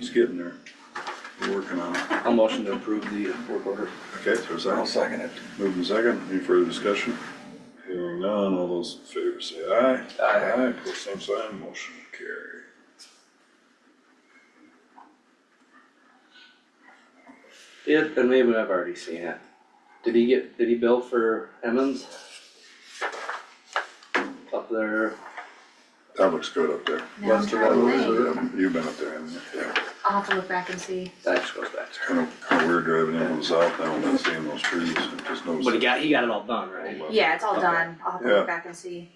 It's getting there. We're working on it. I'll motion to approve the work order. Okay, is there a second? second it. Moved and second, any further discussion? Hearing none, all those in favor say aye. Aye. Aye, pull same sign, motion carried. It, and maybe I've already seen it. Did he get, did he bill for Emmons? Up there, That looks good up there. Now I'm West of driving late. Waterloo, Yeah, You've been up there, haven't you? Yeah. I'll have to look back and see. that just goes back to Kind of, kind of weird driving in from the south now, and not seeing those trees, and just noticed. But he it. got, he got it all done, right? Yeah, it's all Okay. done. I'll have to Yeah. look back and see.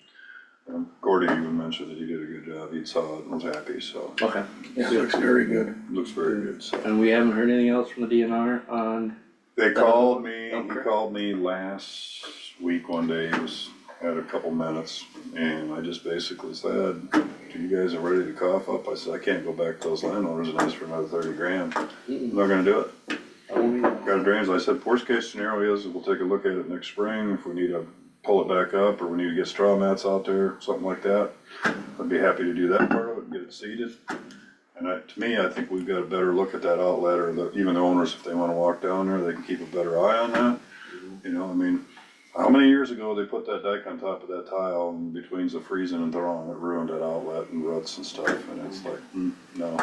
Um, Gordy even mentioned that he did a good job, he saw it and was happy, so. Okay, Yeah, it looks very good. Looks very good, so. and we haven't heard anything else from the DNR on, They called me, he Okay. called me last week one day, he was, had a couple minutes, and I just basically said, you guys are ready to cough up, I said, I can't go back to those landowners and ask for another thirty grand, I'm Mm-mm. not gonna do it. oh, we- Got a drainage, I said, worst case scenario is, we'll take a look at it next spring, if we need to pull it back up, or we need to get straw mats out there, something like that. I'd be happy to do that part of it, and get it seeded. And I, to me, I think we've got a better look at that outlet, or the, even the owners, if they wanna walk down there, they can keep a better eye on that. You know, I mean, how many years ago they put that dike on top of that tile, and between the freezing and thawing, it ruined that outlet and ruts and stuff, and it's like, hmm, no.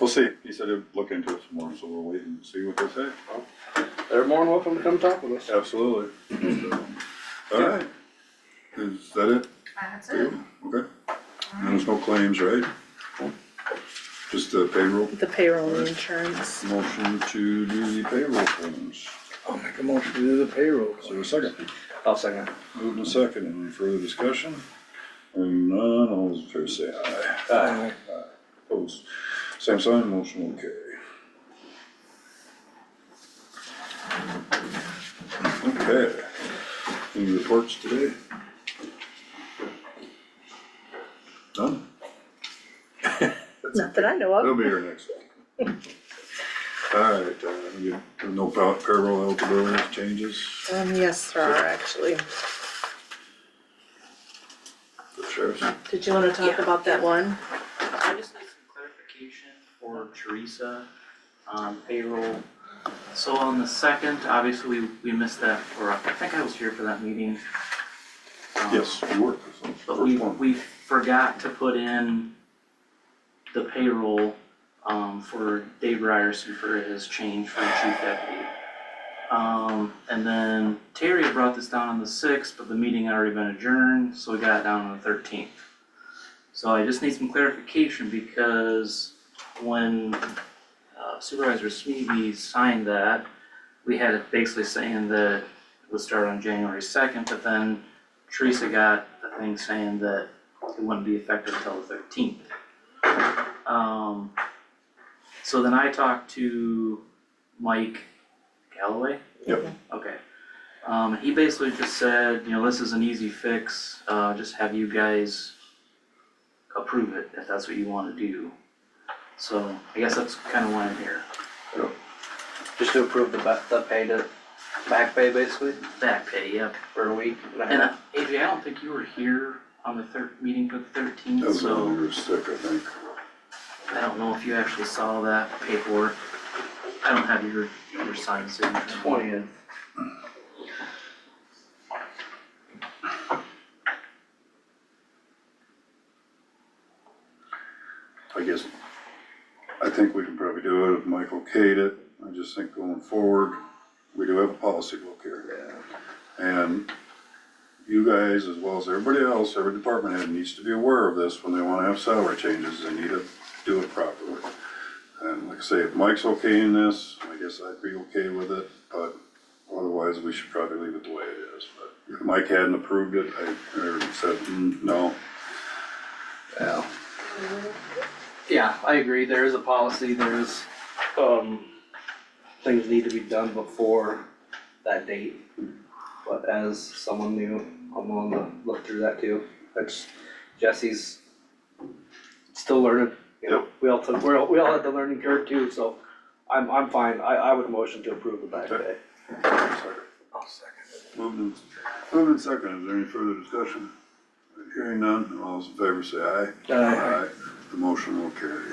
We'll see, he said he'd look into it some more, so we'll wait and see what they say. They're more than welcome to come talk with us. Absolutely. Alright, is that it? That's it. Okay, and there's no claims, right? Just the payroll, The payroll and insurance. motion to do the payroll claims, I'll make a motion to do the payroll. is there a second? I'll second. Moved and second, any further discussion? Hearing none, all those in favor say aye. Uh, Opposed, same sign, motion will carry. Okay, any reports today? None? Not that I know They'll of. be here next week. Alright, uh, you, there are no pa- payroll eligibility changes Um, yes, there are actually. for sheriffs? Did you wanna talk about that one? I just need some clarification for Teresa on payroll. So on the second, obviously, we, we missed that, or I think I was here for that meeting. Um, Yes, you were, that's the But first we, one. we forgot to put in the payroll, um, for Dave Ryerson for his change for chief deputy. Um, and then Terry had brought this down on the sixth, but the meeting had already been adjourned, so we got it down on the thirteenth. So I just need some clarification because when uh, Supervisor Smeby signed that, we had it basically saying that it would start on January second, but then Teresa got a thing saying that it wouldn't be effective until the thirteenth. Um, so then I talked to Mike Galloway? Yep. Okay. Um, he basically just said, you know, this is an easy fix, uh, just have you guys approve it if that's what you wanna do. So I guess that's kinda why I'm here. Just to approve the ba- the pay to, back pay basically, Back pay, yep. for a week and a And half. uh, AJ, I don't think you were here on the third, meeting for the That thirteenth, was so. when you were sick, I think. I don't know if you actually saw that paperwork. I don't have your, your signed signature. Twentieth. I guess, I think we can probably do it if Mike okayed it. I just think going forward, we do have a policy book here. And you guys, as well as everybody else, every department head needs to be aware of this when they wanna have salary changes, they need to do it properly. And like I say, if Mike's okaying this, I guess I'd be okay with it, but otherwise, we should probably leave it the way it is. But if Mike hadn't approved it, I, I said, "Mm, no, Yeah. Yeah, I agree, there is a policy, there's, um, things need to be done before that date. But as someone new, I'm willing to look through that too, that's, Jesse's still learning, you know, we all took, we're all, we all had the learning curve too, so I'm, I'm fine, I, I would motion to approve the back pay. Sorry. I'll second Moved and, moved and seconded, is there any further discussion? Hearing none, all those in favor say aye. Aye. The motion will carry.